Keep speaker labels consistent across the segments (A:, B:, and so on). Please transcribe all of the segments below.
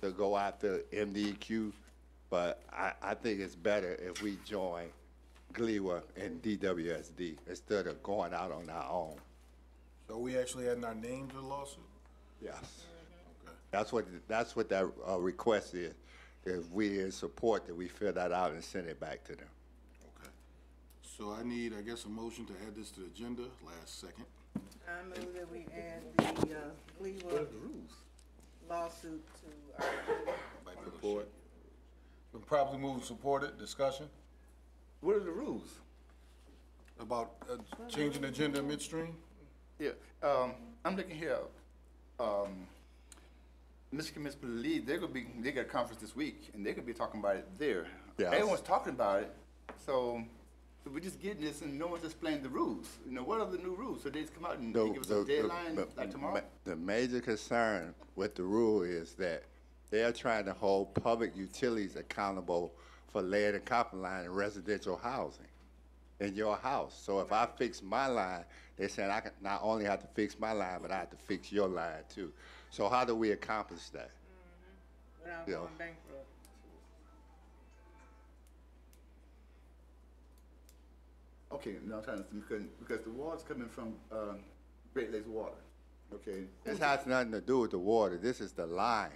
A: to go after MDQ, but I, I think it's better if we join GLEWA and DWSD instead of going out on our own.
B: So we actually adding our name to the lawsuit?
A: Yes. That's what, that's what that, uh, request is. If we in support, that we fill that out and send it back to them.
B: Okay. So I need, I guess, a motion to add this to the agenda, last second.
C: I move that we add the, uh, Cleveland lawsuit to our,
B: Support. Been properly moved and supported, discussion
D: What are the rules?
B: about uh, changing the agenda midstream?
D: Yeah, um, I'm looking here, um, Michigan Municipal League, they're gonna be, they got a conference this week, and they could be talking about it there.
A: Yes.
D: Everyone's talking about it, so, so we're just getting this, and no one's explaining the rules. You know, what are the new rules? So they just come out and
A: The-
D: they give us a
A: the- the-
D: deadline,
A: the-
D: like tomorrow?
A: The major concern with the rule is that they're trying to hold public utilities accountable for lead and copper line in residential housing in your house. So if I fix my line, they're saying I can, not only have to fix my line, but I have to fix your line too. So how do we accomplish that?
C: without
A: Yeah.
C: going bankrupt.
D: Okay, now I'm trying to, because, because the water's coming from, um, Great Lakes Water, okay?
A: This has nothing to do with the water. This is the line.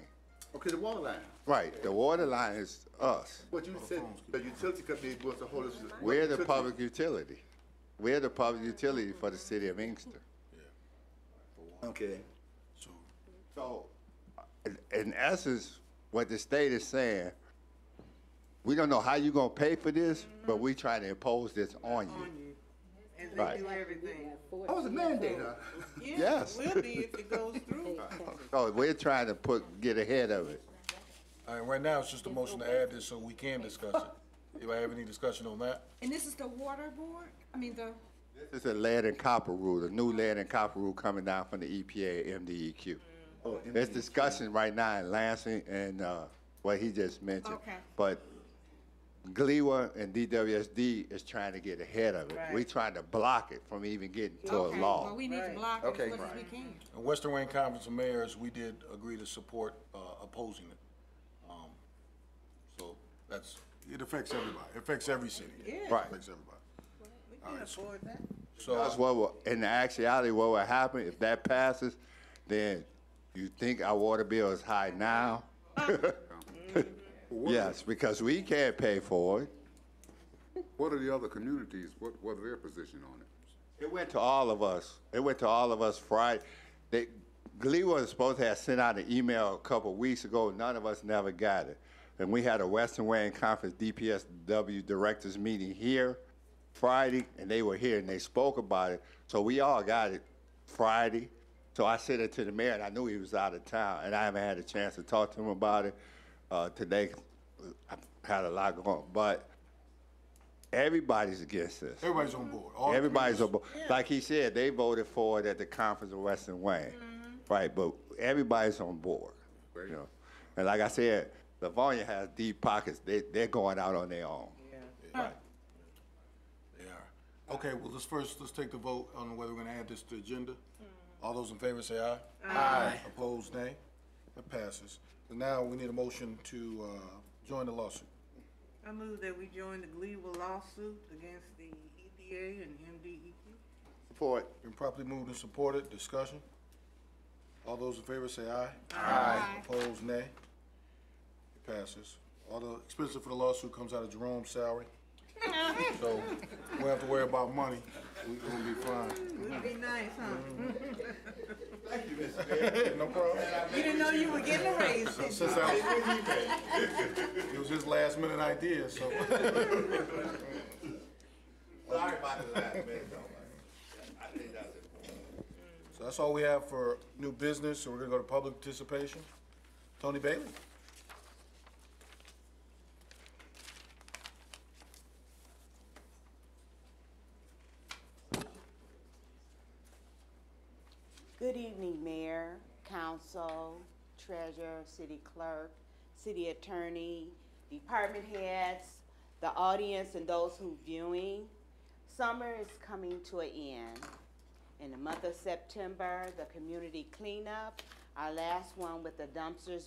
D: Okay, the water line,
A: Right, the water line is us.
D: what you said, the utility company was the whole.
A: We're the public utility. We're the public utility for the city of Inkster.
D: Okay.
B: So,
A: So, in- in essence, what the state is saying, we don't know how you gonna pay for this, but we trying to impose this on
C: On
A: you.
C: you. And
A: Right.
C: they do everything.
D: I was a mandate, huh?
C: Yeah,
A: Yes.
C: will be if it goes through.
A: So we're trying to put, get ahead of it.
B: all right, right now, it's just a motion to add this so we can discuss it. Anybody have any discussion on that?
E: And this is the water board? I mean, the,
A: This is a lead and copper rule, the new lead and copper rule coming down from the E EPA, MDEQ.
D: Oh,
A: There's discussion right now in Lansing and, uh, what he just mentioned.
E: Okay.
A: But GLEWA and DWSD is trying to get ahead of it.
C: Right.
A: We trying to block it from even getting to a
E: okay,
A: law.
E: well, we need to
C: Right.
E: block it
D: Okay.
E: as much as we can.
B: In Western Wayne Conference of Mayors, we did agree to support uh, opposing it. Um, So that's, it affects everybody, It affects every city.
C: Yeah.
A: Right.
B: Affects everybody.
C: We can afford that.
B: So,
A: That's what will, in actuality, what will happen, if that passes, then you think our water bill is high now? Yes, because we can't pay for it.
F: What are the other communities, what, what are their position on it?
A: It went to all of us. It went to all of us Friday. They, Glee was supposed to have sent out an email a couple of weeks ago. None of us never got it. And we had a Western Wayne Conference DPSW directors meeting here Friday, and they were here and they spoke about it. So we all got it Friday. So I sent it to the mayor, and I knew he was out of town, and I haven't had a chance to talk to him about it. Uh, today, I had a lot going, but everybody's against this.
B: everybody's on board. All
A: Everybody's,
B: communities-
A: abo- like he said, they voted for it at the conference of Western Wayne. Right, but everybody's on board, you know. And like I said, Livonia has deep pockets. They, they're going out on their own.
B: They are. Okay, well, let's first, let's take the vote on whether we're gonna add this to the agenda. All those in favor say Hmm. aye. Aye. Opposed, nay. That passes. And now we need a motion to, uh, join the lawsuit.
C: I move that we join the Gleeville lawsuit against the EPA and E MDEQ.
D: Support.
B: Been properly moved and supported, discussion. All those in favor say aye.
E: Aye.
B: Opposed, nay. It passes. All the expenses for the lawsuit comes out of Jerome's salary. So, we don't have to worry about money, we gonna be fine.
C: Would be nice, huh?
B: No problem.
C: You didn't know you were getting a raise, did you?
B: Since I It was his last minute idea, so.
A: Sorry about that, man.
B: So that's all we have for new business, so we're gonna go to public participation. Tony Bailey?
G: Good evening, Mayor, Council, Treasurer, City Clerk, City Attorney, Department Heads, the audience, and those who viewing. Summer is coming to an end. In the month of September, the community cleanup, our last one with the dumpsters